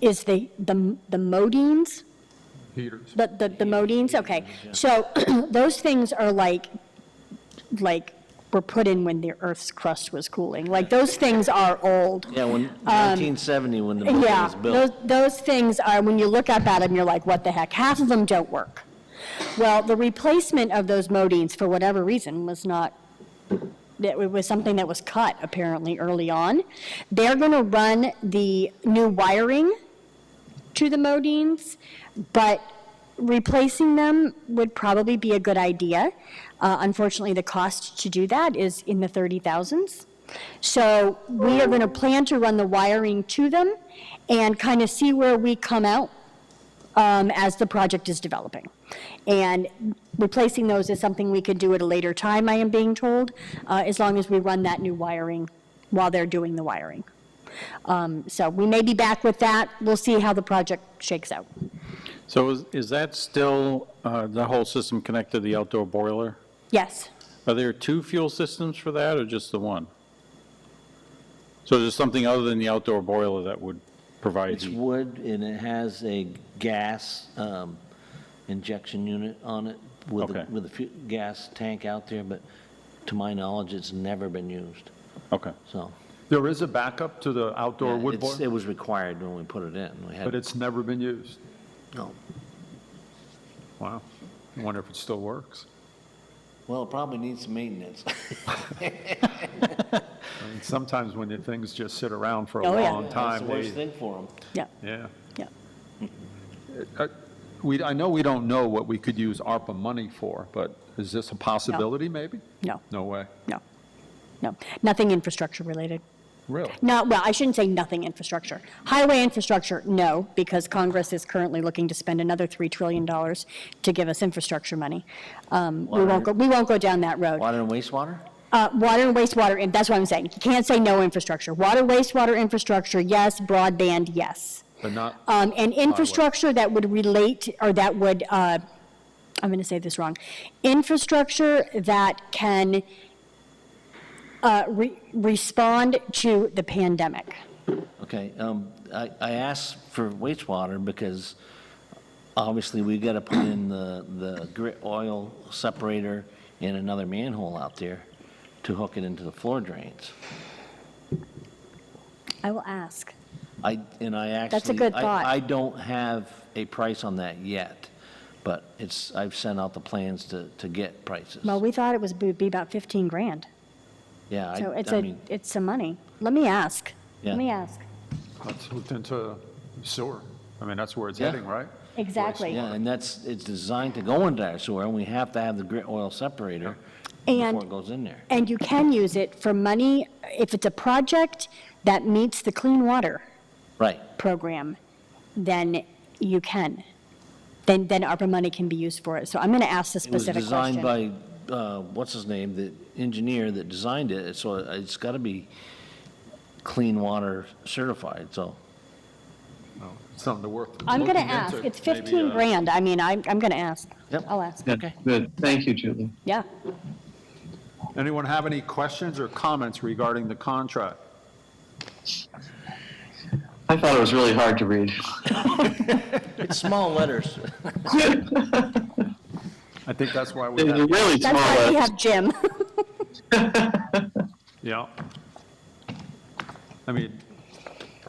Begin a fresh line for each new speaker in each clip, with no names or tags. is the, the the modines,
heaters.
the, the the modines, okay. So those things are like, like, were put in when the Earth's crust was cooling. Like, those things are old.
Yeah, when, 1970, when the building
Um, Yeah,
was
those,
built.
those things are, when you look up at them, you're like, what the heck? Half of them don't work. Well, the replacement of those modines, for whatever reason, was not, that it was something that was cut apparently early on. They're going to run the new wiring to the modines, but replacing them would probably be a good idea. Uh, Unfortunately, the cost to do that is in the 30,000s. So we are going to plan to run the wiring to them and kind of see where we come out um, as the project is developing. And replacing those is something we could do at a later time, I am being told, uh, as long as we run that new wiring while they're doing the wiring. Um, So we may be back with that. We'll see how the project shakes out.
So is, is that still, uh, the whole system connected to the outdoor boiler?
Yes,
Are there two fuel systems for that or just the one? So there's something other than the outdoor boiler that would provide
It's
heat?
wood and it has a gas um, injection unit on it with, a-
Okay.
with a fu- gas tank out there, but to my knowledge, it's never been used,
Okay.
so.
There is a backup to the outdoor
Yeah,
wood
it's-
boiler,
It was required when we put it in. We
but
had,
it's never been used.
no.
Wow. I wonder if it still works.
Well, it probably needs some maintenance.
I mean, Sometimes when the things just sit around for a
Oh, yeah.
long
That's the
time,
worst
they,
thing for them.
yeah,
yeah.
yeah.
Uh, We, I know we don't know what we could use ARPA money for, but is this a possibility, maybe?
No,
No way.
no, no. Nothing infrastructure related.
Really?
No, well, I shouldn't say nothing infrastructure. Highway infrastructure, no, because Congress is currently looking to spend another $3 trillion to give us infrastructure money. Um, We won't go, we won't go down that road.
Water and wastewater?
Uh, Water and wastewater, and that's what I'm saying. You can't say no infrastructure. Water, wastewater infrastructure, yes. Broadband, yes.
But not,
Um, And infrastructure that would relate, or that would, uh, I'm going to say this wrong, infrastructure that can uh, re- respond to the pandemic.
Okay, um, I, I asked for wastewater because obviously we gotta put in the, the grit oil separator and another manhole out there to hook it into the floor drains.
I will ask.
I, and I actually.
a good
I-
thought.
I don't have a price on that yet, but it's, I've sent out the plans to, to get prices.
Well, we thought it was, would be about 15 grand.
Yeah,
So
I,
it's
I
a,
mean,
it's some money. Let me ask.
Yeah.
Let me ask.
it's hooked into sewer. I mean, that's where it's
Yeah.
heading, right?
Exactly.
yeah, and that's, it's designed to go into our sewer and we have to have the grit oil separator
And-
before it goes in there.
And you can use it for money if it's a project that meets the Clean Water
Right.
Program, then you can. Then, then ARPA money can be used for it. So I'm going to ask the
It was
specific
designed
question.
by, uh, what's his name, the engineer that designed it, so it's got to be clean water certified, so.
No, it's Something to worth.
I'm going to
looking into,
ask. It's
maybe,
15
uh,
grand. I mean, I'm, I'm going to ask.
Yep.
I'll ask.
Okay.
Good, good. Thank you, Julie.
Yeah.
Anyone have any questions or comments regarding the contract?
I thought it was really hard to read.
It's small letters.
I think that's why we
It was
have,
really small.
That's why we
letters.
have Jim.
yeah. I mean,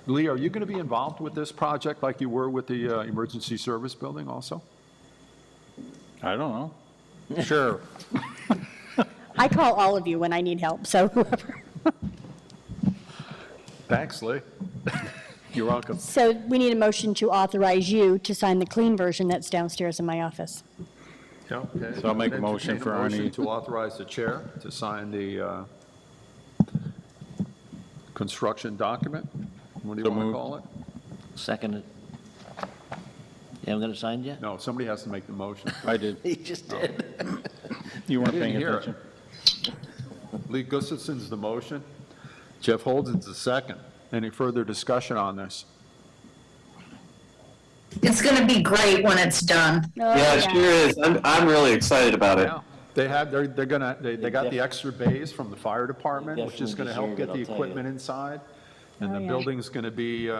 Lee, are you going to be involved with this project like you were with the uh, emergency service building also?
I don't know. Sure.
I call all of you when I need help, so whoever.
Thanks, Lee. You're welcome.
So we need a motion to authorize you to sign the clean version that's downstairs in my office.
So
So I'll make a motion for Ernie.
To authorize the chair to sign the uh, construction document? What do you
So
want to
moved.
call it?
Seconded. You haven't got it signed yet?
No, somebody has to make the motion.
I did.
He just did.
You weren't
didn't
paying
hear it.
attention.
Lee Gustafson's the motion. Jeff Holden's the second. Any further discussion on this?
It's going to be great when it's done.
Oh,
Yeah, it sure is. I'm, I'm really excited about it.
Yeah, they have, they're, they're gonna, they, they got the
def-
extra bays from the fire department, which is gonna
definitely
help
deserve it,
get the
I'll tell you.
equipment inside. And
Oh,
the
yeah.
building's gonna be, uh,